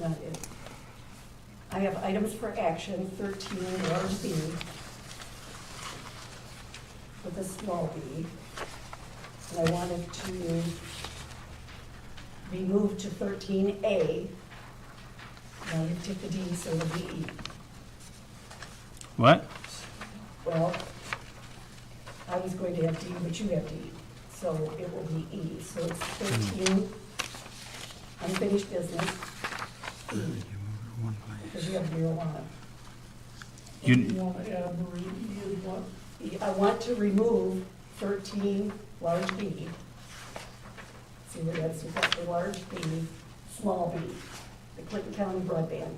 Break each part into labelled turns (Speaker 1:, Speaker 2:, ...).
Speaker 1: not it. I have items for action, 13, large B, with a small b. And I wanted to be moved to 13A. Now you took the D, so it'll be E.
Speaker 2: What?
Speaker 1: Well, I was going to have D, but you have D, so it will be E. So it's 13 unfinished business, because you have marijuana.
Speaker 2: You,
Speaker 3: want to add Marie E as what?
Speaker 1: I want to remove 13 large B. See where that's, we've got the large B, small b, the Clinton County broadband.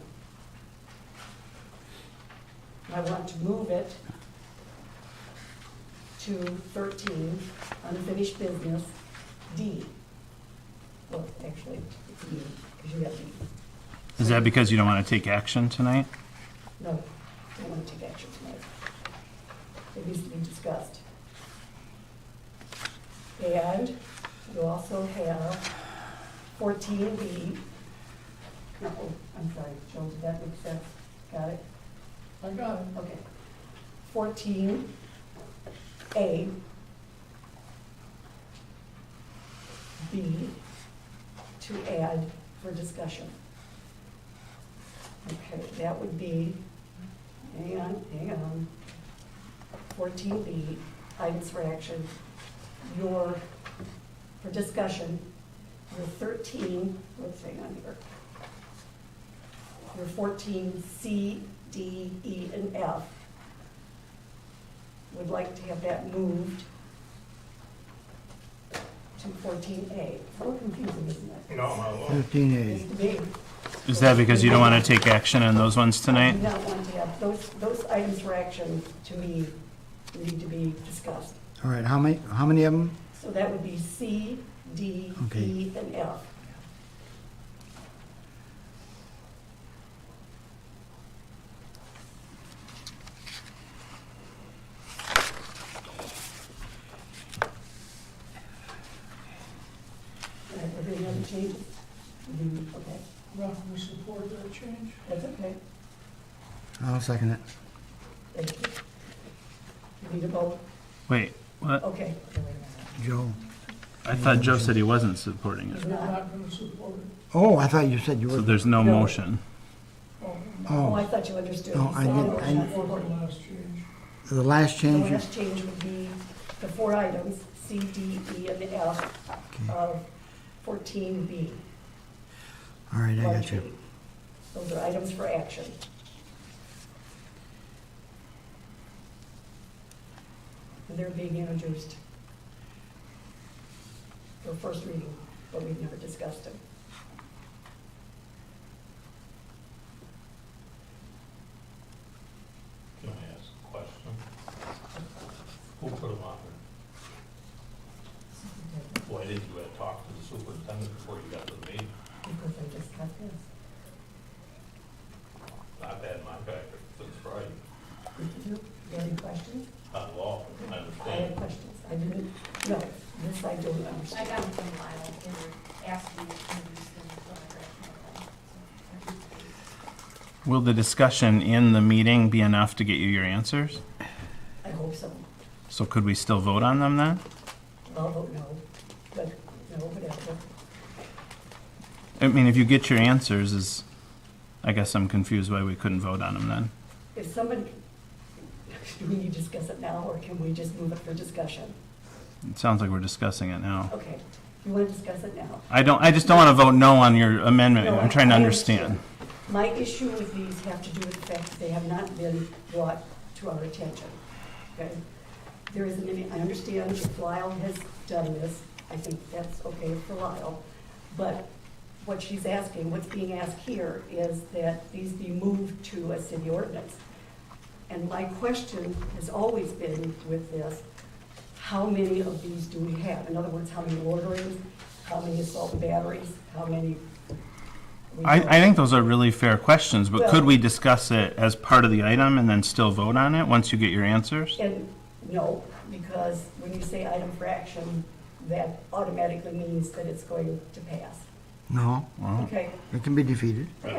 Speaker 1: And I want to move it to 13, unfinished business, D. Well, actually, it's E, because you have D.
Speaker 2: is that because you don't want to take action tonight?
Speaker 1: No, don't want to take action tonight. It needs to be discussed. And you also have fourteen B. No, Oh, I'm sorry, Joe, did that make sense? Got it?
Speaker 3: I got it.
Speaker 1: Okay. Fourteen A. B to add for discussion. Okay, that would be, hang on, hang on. Fourteen B, items for action, your, for discussion, your thirteen, let's hang on here. Your fourteen C, D, E, and F. Would like to have that moved to fourteen A. It's a little confusing, isn't it?
Speaker 4: No,
Speaker 1: It's
Speaker 5: 15A.
Speaker 1: the big-
Speaker 2: Is that because you don't want to take action on those ones
Speaker 1: I do
Speaker 2: tonight?
Speaker 1: not want to have, those, those items for action, to me, need to be discussed.
Speaker 5: All right, how many, how many of them?
Speaker 1: So that would be C, D, E,
Speaker 5: Okay.
Speaker 1: and F. All right, are there any other changes? Mm, Okay,
Speaker 3: Ralph, we support that change?
Speaker 1: that's okay.
Speaker 5: I'll second it.
Speaker 1: Thank you. You need a vote?
Speaker 2: Wait, what?
Speaker 1: Okay.
Speaker 5: Joe.
Speaker 2: I thought Joe said he wasn't supporting
Speaker 3: Because
Speaker 2: it.
Speaker 3: we're not going to support it.
Speaker 5: Oh, I thought you said you
Speaker 2: So
Speaker 5: were,
Speaker 2: there's no
Speaker 1: No.
Speaker 2: motion.
Speaker 3: Oh,
Speaker 1: Oh, I
Speaker 5: oh,
Speaker 1: thought you understood.
Speaker 5: No, I
Speaker 1: So
Speaker 5: didn't.
Speaker 1: we're
Speaker 5: I-
Speaker 1: not
Speaker 3: Support the
Speaker 1: voting.
Speaker 3: last change.
Speaker 5: the last
Speaker 1: The
Speaker 5: change, is-
Speaker 1: last change would be the four items, C, D, E, and F of 14B.
Speaker 5: all right, I got
Speaker 1: largely.
Speaker 5: you.
Speaker 1: Those are items for action. And they're being introduced for first reading, but we've never discussed them.
Speaker 4: can I ask a question? Who put them on there? Why didn't you uh, talk to the superintendent before you got to the meeting?
Speaker 1: Because I just got this.
Speaker 4: I've had my back since Friday,
Speaker 1: Did you, you have any questions?
Speaker 4: on law, I
Speaker 1: I have
Speaker 4: understand.
Speaker 1: questions. I didn't, no, this I don't
Speaker 6: I
Speaker 1: understand.
Speaker 6: got it from Lyle, they were asking me to use them for my grant. so I just paid.
Speaker 2: Will the discussion in the meeting be enough to get you your answers?
Speaker 1: I hope so.
Speaker 2: So could we still vote on them then?
Speaker 1: I'll vote Oh, no, but, no, whatever.
Speaker 2: I mean, if you get your answers, is, I guess I'm confused why we couldn't vote on them then.
Speaker 1: If somebody, do we need to discuss it now, or can we just move it for discussion?
Speaker 2: It sounds like we're discussing it now.
Speaker 1: Okay, you want to discuss it now?
Speaker 2: I don't, I just don't want to vote no on your amendment. I'm trying
Speaker 1: No,
Speaker 2: to
Speaker 1: I- I
Speaker 2: understand.
Speaker 1: My issue with these have to do with the fact that they have not been brought to our attention, okay? There isn't any, I understand if Lyle has done this, I think that's okay for Lyle, but what she's asking, what's being asked here is that these be moved to a city ordinance. And my question has always been with this, how many of these do we have? In other words, how many orderings, how many assault and batteries, how many? we
Speaker 2: I,
Speaker 1: don't-
Speaker 2: I think those are really fair questions, but could
Speaker 1: Well-
Speaker 2: we discuss it as part of the item and then still vote on it once you get your answers?
Speaker 1: And no, because when you say item for action, that automatically means that it's going to pass.
Speaker 5: No,
Speaker 2: Well,
Speaker 1: Okay,
Speaker 5: it can be defeated.